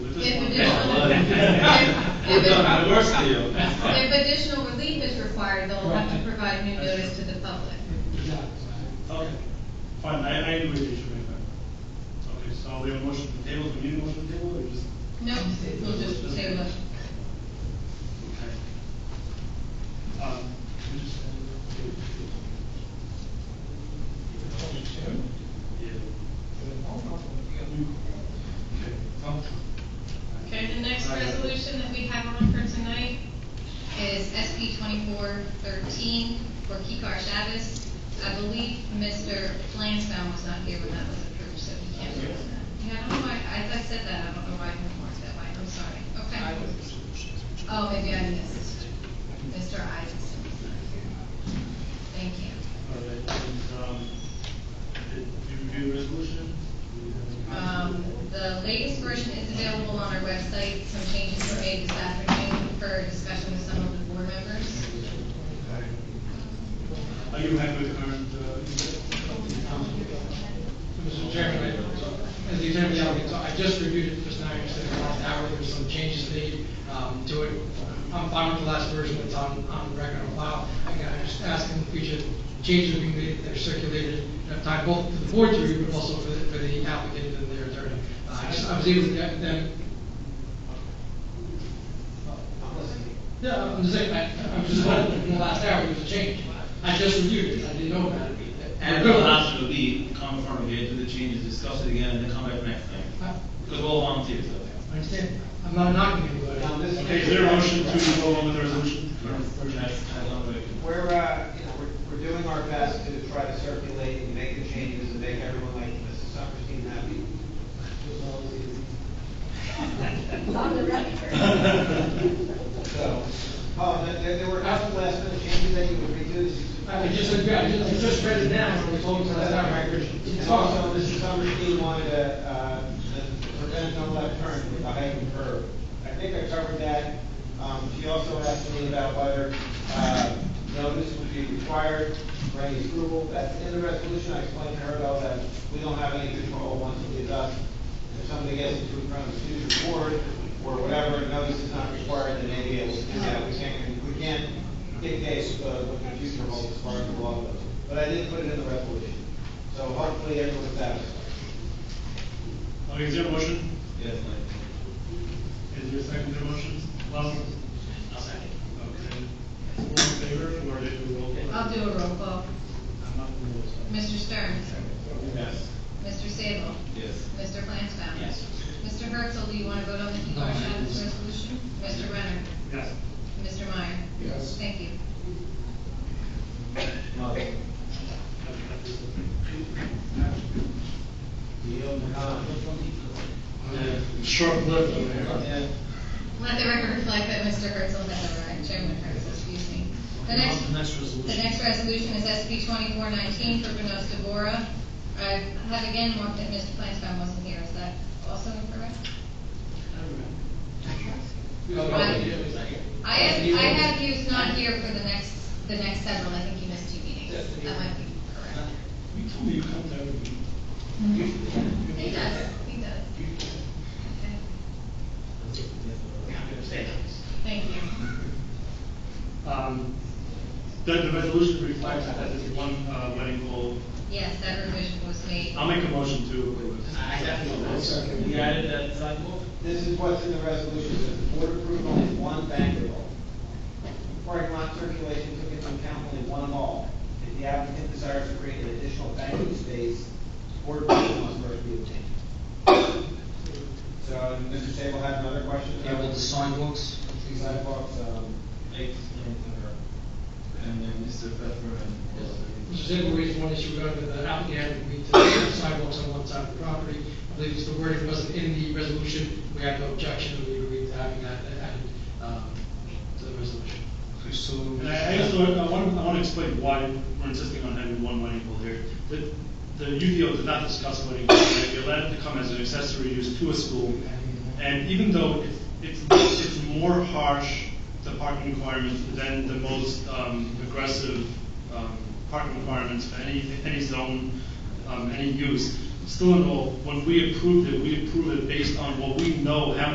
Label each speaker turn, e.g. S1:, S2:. S1: If
S2: worse deal.
S1: additional relief is required, they'll have to provide new notice to the public.
S2: Okay, fine, I, I agree with you, Shemay, fine. Okay, so we have a motion to table, do we need a motion to table, or just?
S1: No, we'll just table it.
S2: Okay. Um, we just. Yeah. Okay, Tom?
S1: Okay, the next resolution that we have on for tonight is SP twenty-four thirteen for Kikar Chavez. I believe Mr. Flansbaum was not here when that was approved, so he can't do that. Yeah, I don't know why, I, I said that, I don't know why he marked that way, I'm sorry, okay. Oh, maybe I missed, Mr. Isaacson was not here. Thank you.
S2: All right, and, um, did you review the resolution?
S1: Um, the latest version is available on our website, some changes were made this afternoon for discussion with some of the board members.
S2: Are you happy with current, uh?
S3: Mr. Chairman, I- as the attorney general, so I just reviewed it just now, you said about an hour, there were some changes made um, to it. I'm fine with the last version that's on, on record on file. Again, I'm just asking if we should change being made, that they're circulated, enough time both for the board to review, but also for the, for the applicant and their attorney. Uh, I just- I was able to get them. Yeah, I'm just saying, I, I'm just hoping in the last hour there was a change. I just reviewed it, I didn't know about it.
S4: And the last would be come in front of here, do the changes, discuss it again, and then come back next time.
S3: I-
S4: Because we're all volunteers, though.
S3: I understand. I'm not knocking anybody. I'm just-
S2: Okay, is there a motion to go on with the resolution?
S5: We're, uh, you know, we're, we're doing our best to try to circulate and make the changes and make everyone like Mrs. Summerstein happy. So, oh, and there, there were a couple last minute changes that you would redo.
S3: I just, I just, I just read it now, and it's all to that record.
S5: And also, Mrs. Summerstein wanted to, uh, to prevent no left turn with a heightened curve. I think I covered that. Um, she also asked me about whether, uh, notice would be required for any approval. That's in the resolution. I explained to her though that we don't have any control once it is us. If somebody gets into a front of the future board or whatever, and notice is not required, then maybe it will do that. We can't, we can't dictate uh, what the future holds as far as the law goes. But I did put it in the resolution. So hopefully everyone's satisfied.
S2: Okay, is there a motion?
S4: Yes,
S2: Is there a second to the motion? Last one? Okay. All in favor, or do you roll call?
S1: I'll do a roll call.
S2: I'm not going
S1: Mr. Stern?
S2: Yes.
S1: Mr. Sable?
S4: Yes.
S1: Mr. Flansbrough? Yes. Mr. Herzl, do you want to vote on the
S3: No, I-
S1: Kikar-Chavez resolution? Mr. Renner?
S2: Yes.
S1: Mr. Meyer?
S3: Yes.
S1: Thank you.
S2: Short-lived.
S1: Let the record reflect that Mr. Herzl has arrived, Chairman Herzl, excuse me. The next, the next resolution is SP twenty-four nineteen for Benos Devora. I have again marked that Mr. Flansbrough wasn't here, is that also correct? I have, I have he was not here for the next, the next several, I think he missed two meetings, that might be correct.
S2: You told me you come to every meeting.
S1: He does, he does. Okay. Thank you.
S2: Um, the, the resolution reflects that there's one, uh, wedding hall.
S1: Yes, that revision was made.
S2: I'll make a motion to approve it.
S4: We added that sidewalk?
S5: This is what's in the resolution, that the board approved only one banquet hall. Parking lot circulation took into account only one hall. If the applicant desires to create an additional banquet space, board approval must first be obtained. So, Mr. Sable had another question?
S6: Yeah, well, the sidewalks,
S5: These sidewalks, um,
S4: And then Mr. Pepper and.
S3: Mr. Zabel raised one issue regarding the applicant having agreed to the sidewalks on one side of the property. I believe it's the wording wasn't in the resolution, we had no objection, and we agreed to having that added, um, to the resolution.
S6: so.
S2: And I, I just, want- I want, I want to explain why we're insisting on having one wedding hall here. The, the UDO did not discuss wedding hall, right? They allowed it to come as an accessory use to a school. And even though it's, it's, it's more harsh, the parking requirements, than the most, um, aggressive, um, parking requirements for any, any zone, um, any use, still in all, when we approved it, we approved it based on what we know, how